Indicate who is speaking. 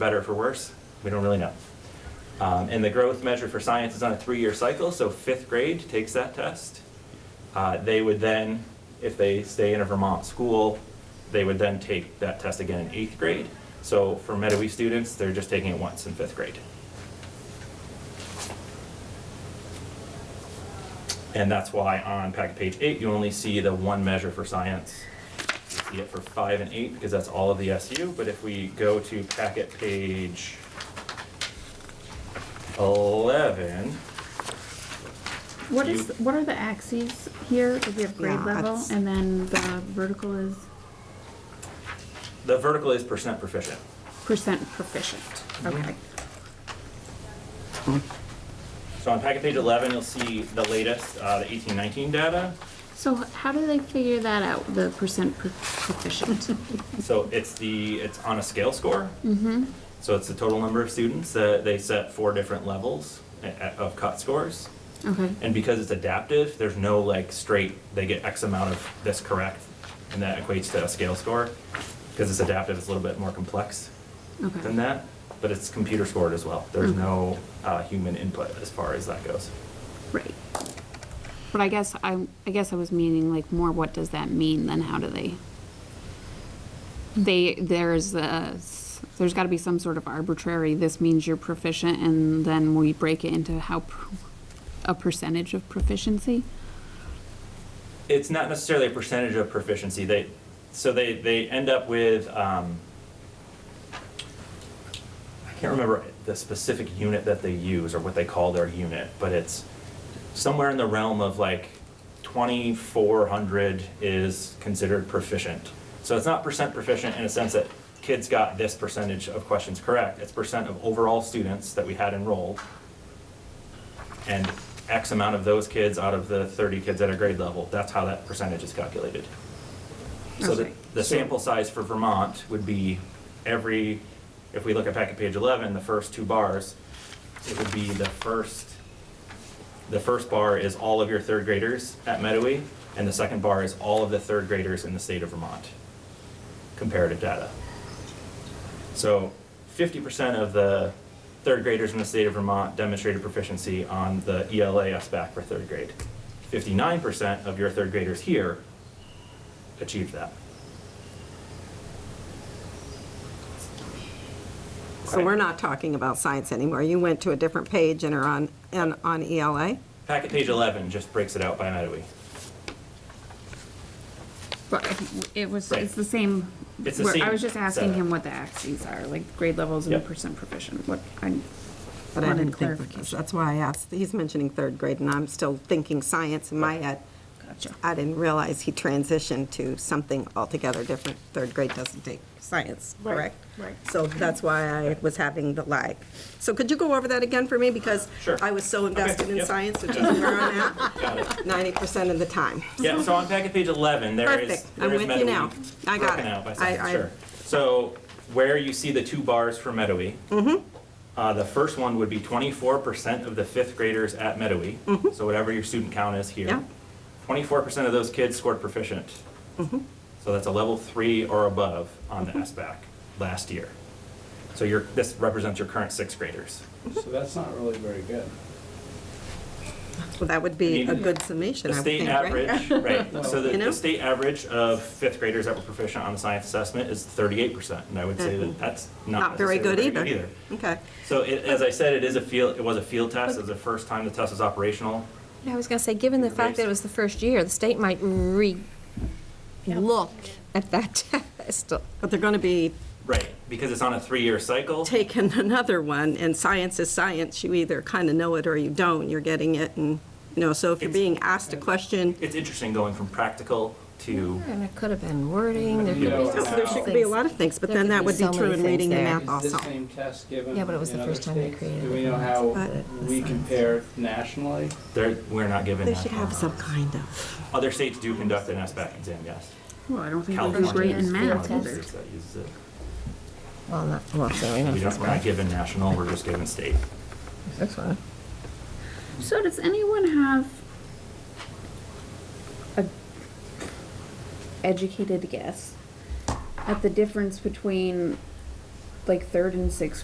Speaker 1: better for worse, we don't really know. Um, and the growth measure for science is on a three-year cycle, so fifth grade takes that test. Uh, they would then, if they stay in a Vermont school, they would then take that test again in eighth grade. So for MetaWe students, they're just taking it once in fifth grade. And that's why on packet page eight, you only see the one measure for science. You see it for five and eight because that's all of the SU, but if we go to packet page eleven,
Speaker 2: What
Speaker 1: You-
Speaker 2: is, what are the axes here? If you have grade
Speaker 3: Yeah,
Speaker 2: level,
Speaker 3: it's-
Speaker 2: and then the vertical is
Speaker 1: the vertical is percent proficient.
Speaker 2: percent proficient. Okay.
Speaker 1: So on packet page eleven, you'll see the latest, uh, the eighteen nineteen data.
Speaker 2: So how do they figure that out, the percent pro- proficient?
Speaker 1: So it's the, it's on a scale score. Mm-hmm. So it's the total number of students that they set four different levels a- a- of cut scores.
Speaker 2: Okay,
Speaker 1: And because it's adaptive, there's no like straight, they get X amount of this correct, and that equates to a scale score. Because it's adaptive, it's a little bit more complex than
Speaker 2: okay. Mm-hmm.
Speaker 1: that, but it's computer scored as well. There's
Speaker 2: Okay.
Speaker 1: no uh, human input as far as that goes.
Speaker 2: Right. But I guess I, I guess I was meaning like more what does that mean than how do they? They, there's a, s- there's gotta be some sort of arbitrary, this means you're proficient and then we break it into how, pr- a percentage of proficiency?
Speaker 1: it's not necessarily a percentage of proficiency. They, so they, they end up with, um, I can't remember the specific unit that they use or what they call their unit, but it's somewhere in the realm of like 2,400 is considered proficient. So it's not percent proficient in a sense that kids got this percentage of questions correct. It's percent of overall students that we had enrolled and X amount of those kids out of the 30 kids at a grade level, that's how that percentage is calculated. So the,
Speaker 2: Okay.
Speaker 1: the sample size for Vermont would be every, if we look at packet page 11, the first two bars, it would be the first, the first bar is all of your third graders at Medowee, and the second bar is all of the third graders in the state of Vermont, comparative data. So fifty percent of the third graders in the state of Vermont demonstrated proficiency on the E ELA SBAC for third grade. Fifty-nine percent of your third graders here achieved that.
Speaker 3: So we're not talking about science anymore. You went to a different page and are on, and on E ELA?
Speaker 1: Packet page eleven just breaks it out by Medowee.
Speaker 2: But it was,
Speaker 1: Right.
Speaker 2: it's the same.
Speaker 1: It's the
Speaker 2: where- I
Speaker 1: same
Speaker 2: was just asking
Speaker 1: setup.
Speaker 2: him what the axes are, like grade levels and
Speaker 1: Yep.
Speaker 2: percent proficient, what, I
Speaker 3: But I
Speaker 2: wanted
Speaker 3: didn't think, because
Speaker 2: clarification.
Speaker 3: that's why I asked. He's mentioning third grade, and I'm still thinking science in my head.
Speaker 2: Gotcha.
Speaker 3: I didn't realize he transitioned to something altogether different. Third grade doesn't take science,
Speaker 2: Right,
Speaker 3: correct?
Speaker 2: right.
Speaker 3: So that's why I was having the lag. So could you go over that again for me? Because
Speaker 1: Sure.
Speaker 3: I was so invested in
Speaker 1: yep.
Speaker 3: science, which is where I'm at,
Speaker 1: Got it.
Speaker 3: 90% of the time.
Speaker 1: Yeah, so on packet page 11, there is,
Speaker 3: Perfect. I'm
Speaker 1: there is
Speaker 3: with you now.
Speaker 1: Meadowy
Speaker 3: I got
Speaker 1: broken
Speaker 3: it.
Speaker 1: out by
Speaker 3: I-
Speaker 1: section,
Speaker 3: I-
Speaker 1: sure. So where you see the two bars for Meadowy,
Speaker 3: Mm-hmm.
Speaker 1: uh, the first one would be 24% of the fifth graders at Meadowy,
Speaker 3: Mm-hmm.
Speaker 1: so whatever your student count is
Speaker 3: Yeah.
Speaker 1: here. 24% of those kids scored proficient.
Speaker 3: Mm-hmm.
Speaker 1: So that's a level three or above on the SBAC last year. So your, this represents your current sixth graders.
Speaker 4: So that's not really very good.
Speaker 3: Well, that would
Speaker 1: I
Speaker 3: be
Speaker 1: mean,
Speaker 3: a good summation,
Speaker 1: The
Speaker 3: I would
Speaker 1: state
Speaker 3: think, right?
Speaker 1: average, right, so the,
Speaker 3: You know?
Speaker 1: the state average of fifth graders that were proficient on the science assessment is thirty-eight percent, and I would say that that's not
Speaker 3: Mm-hmm. Not very good
Speaker 1: necessarily very
Speaker 3: either. Okay.
Speaker 1: So it, as I said, it is a field, it was a field test, it was the first time the test was operational.
Speaker 5: I was gonna say, given the fact that it was the first year, the state might re, look at that test.
Speaker 3: But they're going to be
Speaker 1: Right, because it's on a three-year cycle,
Speaker 3: taking another one, and science is science. You either kind of know it or you don't. You're getting it, and, you know, so if you're
Speaker 1: It's-
Speaker 3: being asked a question,
Speaker 1: it's interesting going from practical to,
Speaker 5: And it could have been wording, there could
Speaker 4: You
Speaker 5: be
Speaker 4: know,
Speaker 5: so
Speaker 4: how-
Speaker 3: there
Speaker 5: many
Speaker 3: should be a lot
Speaker 5: things.
Speaker 3: of things, but
Speaker 5: There
Speaker 3: then
Speaker 5: could
Speaker 3: that
Speaker 5: be
Speaker 3: would be
Speaker 5: so
Speaker 3: true
Speaker 5: many
Speaker 3: in reading the
Speaker 5: things there.
Speaker 3: math
Speaker 4: Is
Speaker 3: also.
Speaker 4: this same test given
Speaker 5: Yeah, but it was
Speaker 4: in
Speaker 5: the
Speaker 4: other
Speaker 5: first time they
Speaker 4: states?
Speaker 5: created
Speaker 4: Do we
Speaker 5: it.
Speaker 4: know how
Speaker 3: But-
Speaker 4: we compare nationally?
Speaker 1: there, we're not given
Speaker 3: They
Speaker 1: that.
Speaker 3: should have some kind of.
Speaker 1: Other states do conduct an SBAC exam, yes.
Speaker 2: Well, I don't think we do
Speaker 1: California
Speaker 2: great
Speaker 1: is
Speaker 2: in
Speaker 1: one of
Speaker 2: math
Speaker 1: the
Speaker 2: either.
Speaker 1: states that uses it.
Speaker 5: Well, not, well, so
Speaker 1: We
Speaker 5: we know
Speaker 1: don't, we're not given national, we're just given state.
Speaker 5: this one.
Speaker 2: So does anyone have a educated guess at the difference between like third and sixth